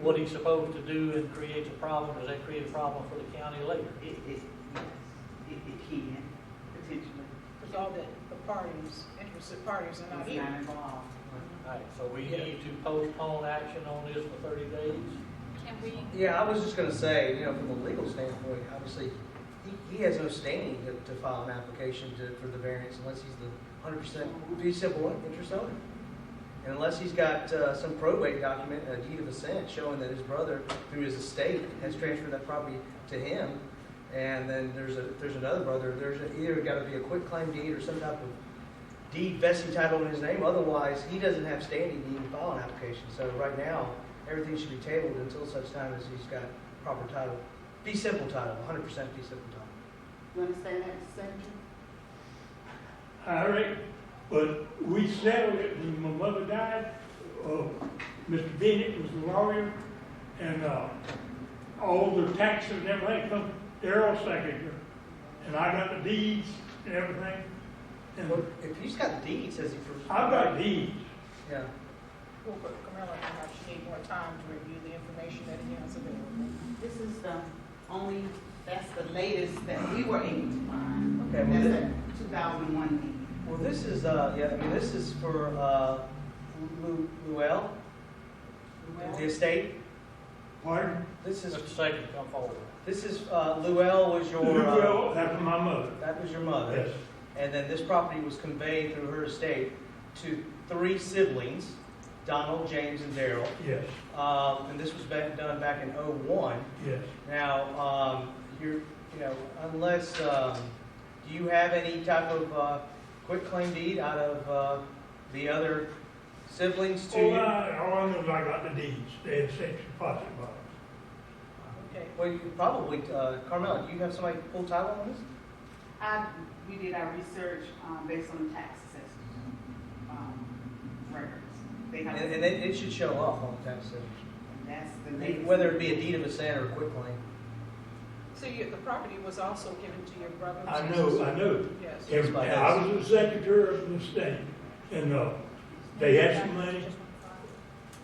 what he's supposed to do and creates a problem, does that create a problem for the county later? It, it, it, it can, potentially. Because all the, the parties, interested parties are not It's here. not involved. All right, so we need to postpone action on this for thirty days? Can we, Yeah, I was just gonna say, you know, from a legal standpoint, obviously, he, he has no standing to, to file an application to, for the variance unless he's the hundred percent, fee simple interest owner. And unless he's got, uh, some probate document, a deed of assent showing that his brother, through his estate, has transferred that property to him. And then there's a, there's another brother, there's a- either gotta be a quick claim deed or some type of deed vesting title in his name, otherwise, he doesn't have standing to even file an application. So right now, everything should be tabled until such time as he's got proper title. Be simple title, hundred percent be simple title. You understand that, Senator? All right, but we settled it when my mother died. Uh, Mr. Bennett was the lawyer, and, uh, all the taxes and everything come Daryl's secretary. And I got the deeds and everything, and Well, if he's got deeds, says he. for- I've got deeds. Yeah, Well, but Camilla, perhaps she need more time to review the information that he has available. This is the only, that's the latest that we were able to find. Okay, well, That's then- a two thousand one meeting. well, this is, uh, yeah, I mean, this is for, uh, Lu- Luell, the Well, estate. Pardon? This is, Mr. Sagan, come forward. this is, uh, Luell was your, uh, Well, after my mother, that was your mother. yes. And then this property was conveyed through her estate to three siblings, Donald, James, and Daryl. Yes, Um, and this was back, done back in '01. yes. Now, um, you're, you know, unless, um, do you have any type of, uh, claim deed out of, uh, the other siblings to All you? I, all I know is I got the deeds, they had sex deposit box. Okay, Well, you probably, uh, Carmella, do you have somebody full title on this? I, we did our research, um, based on the tax assessment, um, records. They have, And, and it, it should show up on the tax that's the assessment, latest. whether it be a deed of assent or a quitclaim. so you, the property was also given to your brother? and I sisters? know, I know. Yes. And I was the secretary of the state, and, uh, they had some money,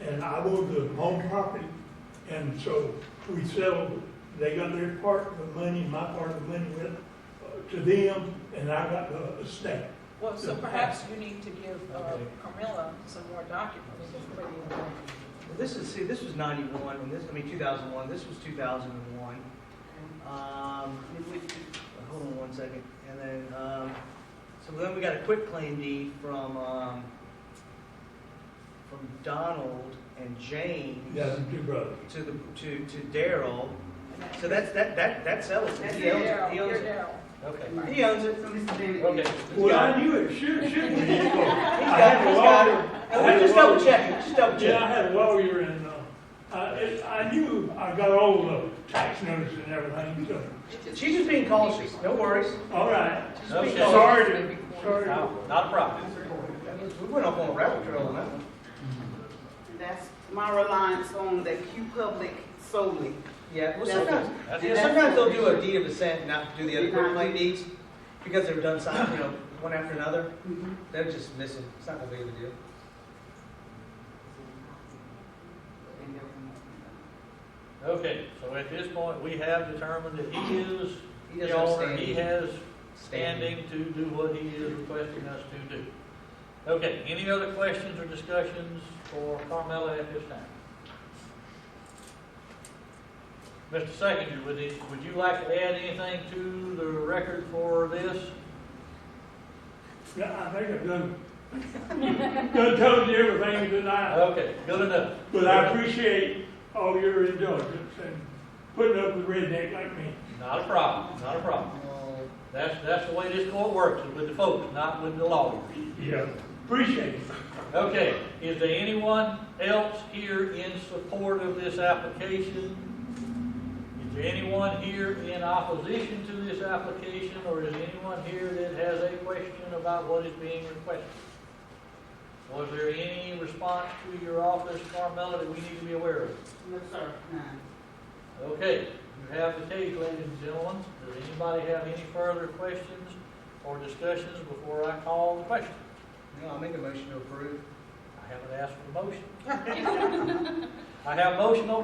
and I was the home property, and so we settled, they got their part of the money, my part of the money went uh, to them, and I got the estate. Well, so perhaps you need to give uh, Okay. Camilla some more documents. for you. Well, This is, see, this was ninety-one, and this, I mean, two thousand one, this was two thousand and one. Um, It would be- Hold on one second, and then, um, so then we got a quick claim deed from, um, from Donald and James Yeah, the two brothers. to the, to, to Daryl. So that's, that, that, that sells it. That's He owns it. Daryl, He owns you're it. Daryl. Okay. He owns it. So, Mr. Bennett. Okay. Well, I knew it, should, should be. He's He's got it, he's got it. And we just double check, it, just double Yeah, I check. had a lawyer and, uh, I, it- I knew, I got all the tax notices and everything, so, it. She's just being cautious, no worries. all right. She's Okay. being cautious. Sorry to, sorry to. No, Not a problem. We went off on a rabbit trail on that one. That's my reliance on the Q Public solely. Yeah, well, That's- sometimes, that's- you know, sometimes they'll do a deed of assent and not do the other quick claim deeds because they're done, sign- you know, one after another. They're just missing. It's not that big of a deal. Okay, so at this point, we have determined that he is He the doesn't have owner, he standing. has standing to do what he is requesting us to do. Okay, any other questions or discussions for Carmella at this time? Mr. Secretary, would you, would you like to add anything to the record for this? Yeah, I think I've done, done told you everything tonight, Okay, good enough. but I appreciate all your indulgence and putting up with redneck like me. Not a problem, not a problem. Well, That's, that's the way this court works, is with the folks, not with the lawyers. Yeah. Appreciate it. Okay, is there anyone else here in support of this application? Is there anyone here in opposition to this application, or is anyone here that has a question about what is being requested? Was there any response to your office, Carmella, that we need to be aware of? No, sir. Okay, you have the case, ladies and gentlemen. Does anybody have any further questions or discussions before I call the question? No, I'll make a motion to approve. I haven't asked for a motion. I have a motion on the